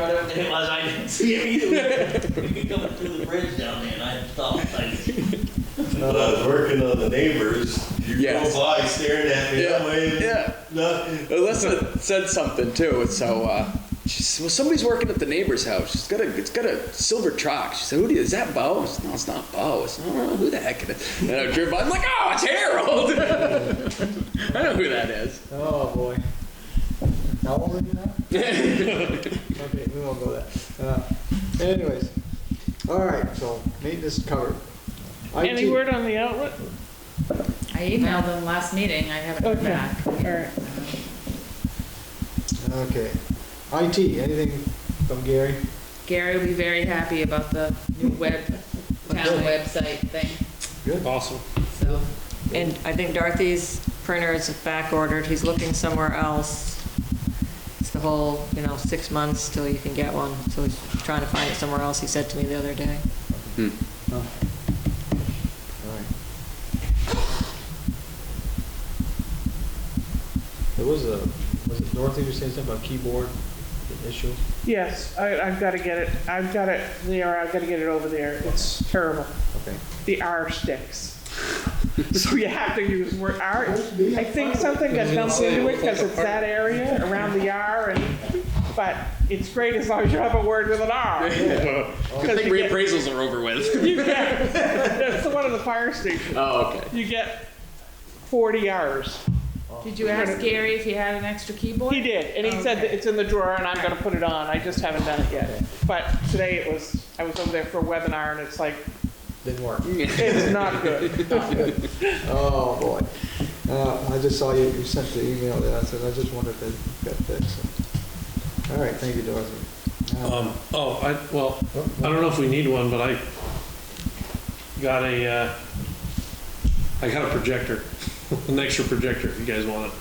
than it was, I didn't see it. Coming through the bridge down there, and I thought, like, When I was working on the neighbors, you Yes. go by staring at me that Yeah, way. yeah. Nothing. Alyssa said something too. So uh, she said, "Well, somebody's working at the neighbor's house. She's got a, it's got a silver truck." She said, "Who do you, is that, Bo?" I said, no, it's not Bo. I said, "I don't know who the heck it is." And I drove by. I'm like, "Oh, it's Harold." I know who that is. Oh, boy. How old are you now? Okay, we won't go there. Uh, Anyways, all right, so maintenance covered. Any IT word on the outlet? I emailed them last meeting, I haven't heard Okay. back. Um, All right. Okay. IT, anything from Gary? Gary will be very happy about the new web, town website thing, Good. Awesome. so. And I think Dorothy's printer is back ordered, he's looking somewhere else. It's the whole, you know, six months till you can get one, so he's trying to find it somewhere else, he said to me the other day. Oh. All right. There was a, was it Dorothy who said something about keyboard issue? Yes, I, I've got to get it. I've got it there. I've got to get it over there. It's terrible. Okay. The R sticks. so you have to use word R. I think something got dumped into it because it's that area around the R, and but it's great as long as you have a word with an R. Good thing you get- reappraisals are over with. You get, that's the one at the fire station. oh, okay. You get 40 Rs. Did you ask Gary if he had an extra keyboard? He did, and he said that Okay. it's in the drawer and I'm gonna put it on, I just haven't done it yet. But today it was, I was over there for a webinar and it's like, Didn't work. it's not good. Oh, boy. Uh, I just saw you, you sent the email there, I said, I just wondered if it got fixed. All right, thank you, Dorothy. Uh, Um, oh, I, well, I don't know if we need one, but I got a, uh, I got a projector, an extra projector, if you guys want it,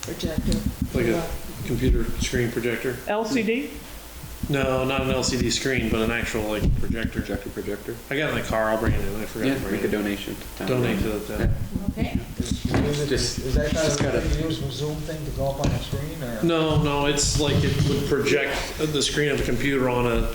Projector. like a computer screen projector. LCD? No, not an LCD screen, but an actual like projector. Projector, projector. I got it in the car, I'll bring it in, I forgot to Yeah, bring make a it. donation. to town. Donate to the town. Okay, Is is it- Just- is that kind of just gotta- thing you use from Zoom thing to go up on the screen, or? No, no, it's like it would project the screen of a computer on a on on a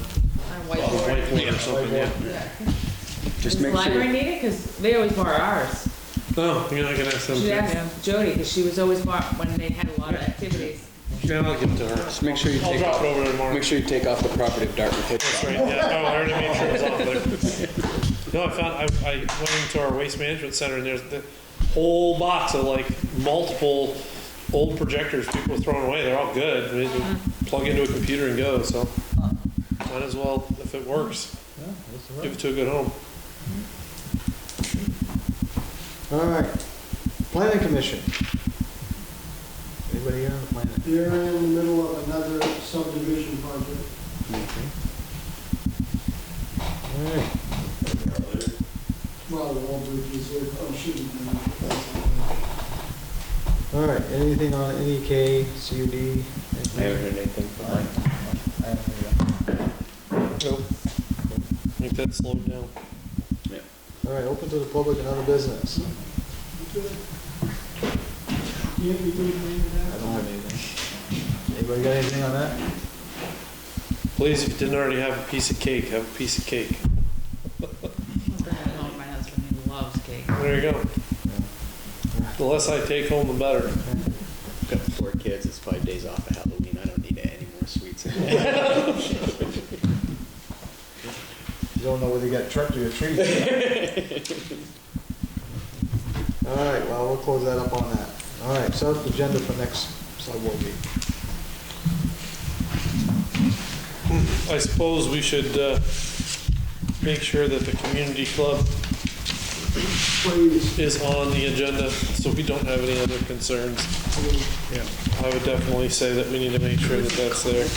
whiteboard. whiteboard or something, yeah. Yeah. Does Just the make sure. library need it? Because they always borrow ours. No, you're not gonna have some, Should Oh, yeah, ask Jody, because she was always borrow, when they had a lot of activities. I'll give it to her. Just make sure you I'll take drop it off. over tomorrow. Make sure you take off the property of Dartmouth Hitchcock. Right, yeah, oh, I already made sure it was off there. No, I found, I, I went into our waste management center and there's the whole box of like multiple old projectors people were throwing away, they're all good. I mean, Mm-hmm. you Plug into a computer and go, so might as well, if it works, Yeah, that's all right. give it to a good home. All right, planning commission. Anybody here on the planning? They're in the middle of another subdivision project. All right, Well, Walbridge is there, oh, shouldn't all right, anything on NEK, CUD? I haven't heard anything from Mike. I haven't heard I think that slowed down. that. All right, open to the public and other business. You have anything to add to that? I don't have anything. Anybody got anything on that? Please, if you didn't already have a piece of cake, have a piece of cake. I'll bring it home to my husband, he loves cake. There you go. The less I take home, the better. I've got four kids. It's five days off of Halloween. I don't need any more sweets. In there. You don't know whether you got tricked or you're treated. All right, well, we'll close that up on that. All right, so that's the agenda for next sub will be. I suppose we should, uh, make sure that the community club Please, is on the agenda, so we don't have any other concerns. I would definitely say that we need to make sure that that's there.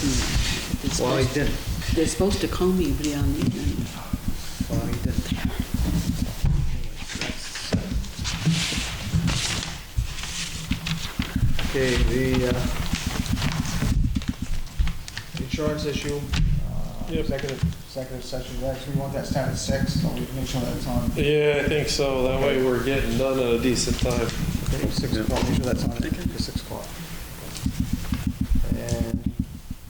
Well, he didn't. They're supposed to call me, but on the agenda. Well, he didn't. Okay, the uh, insurance issue, uh, Yep. executive, executive session, next. we want that started at six, so we can make sure that's on, Yeah, I think so. That way we're getting done at a decent time. six o'clock, make sure that's on at six o'clock.